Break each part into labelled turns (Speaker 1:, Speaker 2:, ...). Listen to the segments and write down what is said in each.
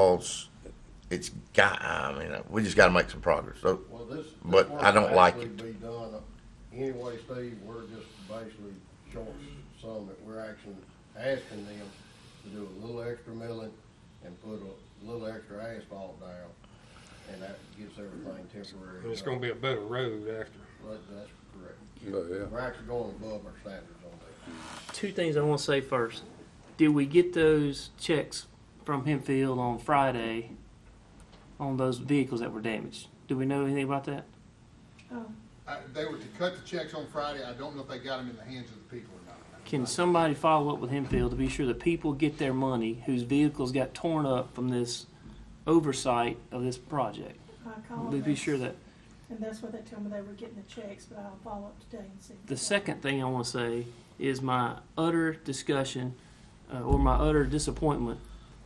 Speaker 1: because it's got, I mean, we just got to make some progress. So,
Speaker 2: Well, this. this
Speaker 1: But
Speaker 2: work
Speaker 1: I don't like
Speaker 2: actually Be done anyway, Steve, we're just basically short some that we're actually asking them to do a little extra milling and put a little extra asphalt down. And that gets everything temporary.
Speaker 3: And it's gonna be a better road after.
Speaker 2: But That's correct.
Speaker 4: Oh, yeah.
Speaker 2: We're actually going above our standards on that.
Speaker 5: Two things I want to say first. Did we get those checks from Hempfield on Friday on those vehicles that were damaged? Do we know anything about that?
Speaker 6: I, they were to cut the checks on Friday. I don't know if they got them in the hands of the people or not.
Speaker 5: Can somebody follow up with Hempfield to be sure the people get their money whose vehicles got torn up from this oversight of this project?
Speaker 7: I called
Speaker 5: Be- Be
Speaker 7: them,
Speaker 5: sure that.
Speaker 7: and that's what they told me they were getting the checks, but I'll follow up today and see.
Speaker 5: The second thing I want to say is my utter discussion uh, or my utter disappointment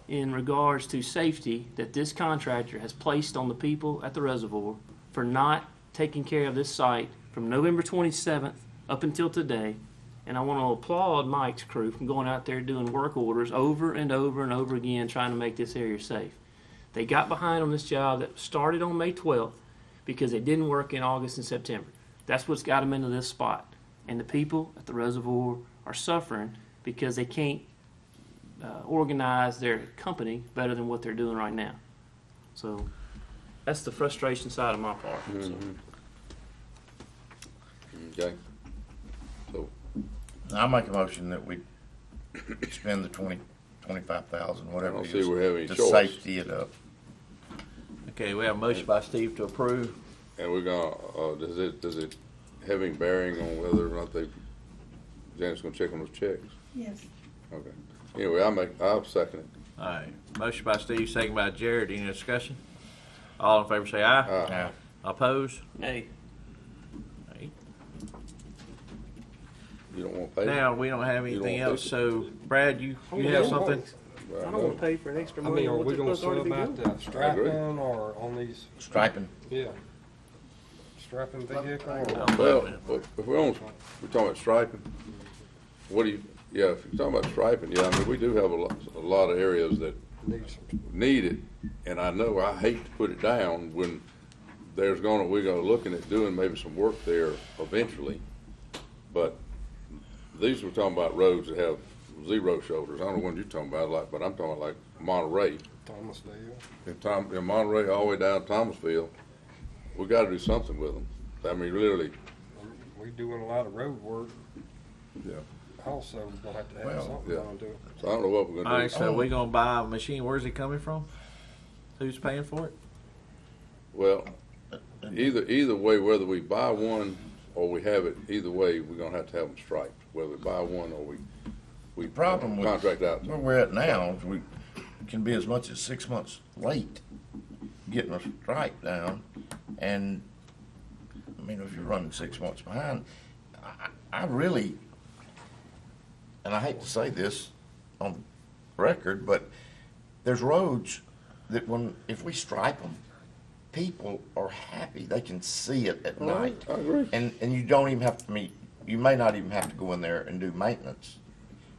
Speaker 5: in regards to safety that this contractor has placed on the people at the reservoir for not taking care of this site from November 27th up until today. And I want to applaud Mike's crew from going out there doing work orders over and over and over again trying to make this area safe. They got behind on this job that started on May 12th because it didn't work in August and September. That's what's got them into this spot. And the people at the reservoir are suffering because they can't uh, organize their company better than what they're doing right now. So that's the frustration side of my part. So.
Speaker 4: Okay.
Speaker 1: I make a motion that we spend the twenty, twenty-five thousand,
Speaker 4: I
Speaker 1: whatever
Speaker 4: don't
Speaker 1: it
Speaker 4: see
Speaker 1: is,
Speaker 4: we have any
Speaker 1: to
Speaker 4: choice.
Speaker 1: safety it up.
Speaker 8: Okay, we have a motion by Steve to approve.
Speaker 4: And we're gonna, uh, does it, does it have any bearing on whether or not they, Janet's gonna check on those checks?
Speaker 7: Yes,
Speaker 4: Okay. Anyway, I make, I'll second it.
Speaker 8: All right, motion by Steve, second by Jared. Any discussion? All in favor say aye.
Speaker 4: Aye.
Speaker 1: Yeah.
Speaker 8: Oppose?
Speaker 5: Hey,
Speaker 4: You don't wanna pay?
Speaker 8: Now, we don't have
Speaker 4: You don't
Speaker 8: anything
Speaker 4: want
Speaker 8: else,
Speaker 4: to-
Speaker 8: so Brad, you, you have something?
Speaker 4: Well,
Speaker 5: I
Speaker 4: know.
Speaker 5: don't want to pay for an extra
Speaker 3: I
Speaker 5: money.
Speaker 3: mean,
Speaker 5: on
Speaker 3: are
Speaker 5: what
Speaker 3: we
Speaker 5: they're
Speaker 3: gonna
Speaker 5: supposed to
Speaker 3: sell
Speaker 5: already be
Speaker 3: about
Speaker 5: doing.
Speaker 3: the
Speaker 4: agree.
Speaker 3: striping or on these,
Speaker 1: Striping,
Speaker 3: yeah. Strapping vehicle or?
Speaker 4: Well, if we're on, we're talking about striping, what do you, yeah, if you're talking about striping, yeah, I mean, we do have a lot, a lot of areas that
Speaker 3: Need some-
Speaker 4: need it, and I know I hate to put it down when there's gonna, we're gonna looking at doing maybe some work there eventually, but these we're talking about roads that have zero shoulders, I don't know what you're talking about, like, but I'm talking like Monterey.
Speaker 3: Thomasdale.
Speaker 4: If Tom, in Monterey, all the way down to Thomasville, we gotta do something with them, I mean, literally,
Speaker 3: We doing a lot of road work.
Speaker 4: Yeah.
Speaker 3: Also, we're gonna have to have
Speaker 1: Well,
Speaker 3: something
Speaker 4: yeah.
Speaker 3: on to it.
Speaker 4: so I don't know what we're
Speaker 8: All
Speaker 4: gonna
Speaker 8: right,
Speaker 4: do.
Speaker 8: so we gonna buy a machine. Where's it coming from? Who's paying for it?
Speaker 4: Well, either, either way, whether we buy one or we have it, either way, we're gonna have to have them striped, whether we buy one or we, we
Speaker 1: the problem with.
Speaker 4: contract out.
Speaker 1: Where we're at now, is we can be as much as six months late getting a strike down. And, I mean, if you're running six months behind, I, I I really, and I hate to say this on record, but there's roads that when, if we stripe them, people are happy. They can see it at night.
Speaker 4: I agree.
Speaker 1: And, and you don't even have to meet, you may not even have to go in there and do maintenance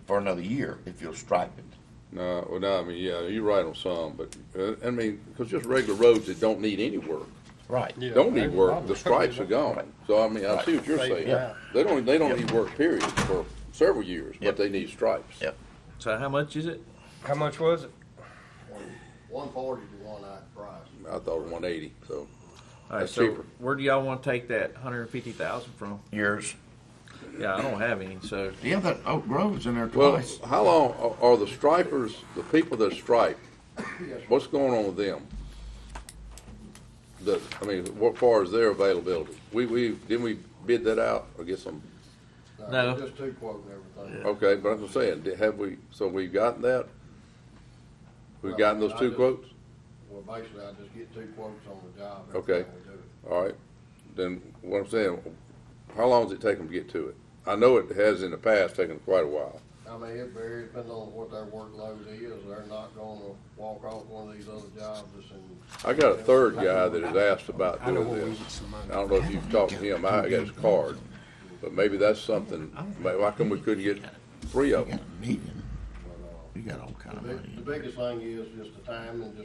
Speaker 1: for another year if you'll stripe it.
Speaker 4: No, well, no, I mean, yeah, you're right on some, but, uh, I mean, cause just regular roads that don't need any work,
Speaker 1: Right.
Speaker 3: Yeah,
Speaker 4: don't
Speaker 3: they-
Speaker 4: need work, the stripes are gone. So, I mean, I see what you're
Speaker 3: Right.
Speaker 4: saying.
Speaker 3: Yeah.
Speaker 4: They don't, they don't need work period for several years, but
Speaker 1: Yep.
Speaker 4: they need stripes.
Speaker 1: Yep.
Speaker 8: So how much is it?
Speaker 3: How much was it?
Speaker 2: One forty to one eye price.
Speaker 4: I thought one eighty, so,
Speaker 8: All right,
Speaker 4: That's
Speaker 8: so
Speaker 4: cheaper.
Speaker 8: where do y'all wanna take that hundred and fifty thousand from?
Speaker 1: Years.
Speaker 8: Yeah, I don't have any, so
Speaker 1: Yeah, that Oak Grove's in there
Speaker 4: well,
Speaker 1: twice.
Speaker 4: how long, are- are the stripers, the people that stripe, what's going on with them? The, I mean, what far as their availability? We, we, didn't we bid that out or get some?
Speaker 8: No.
Speaker 2: Just two quoting everything.
Speaker 4: Okay, but I'm just saying, did- have we, so we've gotten that? We've gotten those two quotes?
Speaker 2: Well, basically, I just get two quotes on the job. every
Speaker 4: Okay.
Speaker 2: time we do it.
Speaker 4: All right, then what I'm saying, how long does it take them to get to it? I know it has in the past taken quite a while.
Speaker 2: I mean, it varies depending on what their workload is. They're not gonna walk off one of these other jobs and.
Speaker 4: I got a third guy that has asked about
Speaker 3: I know
Speaker 4: doing
Speaker 3: where we
Speaker 4: this.
Speaker 3: get some
Speaker 4: I
Speaker 3: money.
Speaker 4: don't know if you've talked to him, I got his card, but maybe that's something, may- why come we couldn't get three of them?
Speaker 1: Got a meeting.
Speaker 2: but, uh,
Speaker 1: You got all kind
Speaker 2: The
Speaker 1: of
Speaker 2: big-
Speaker 1: money.
Speaker 2: the biggest thing is just the time and just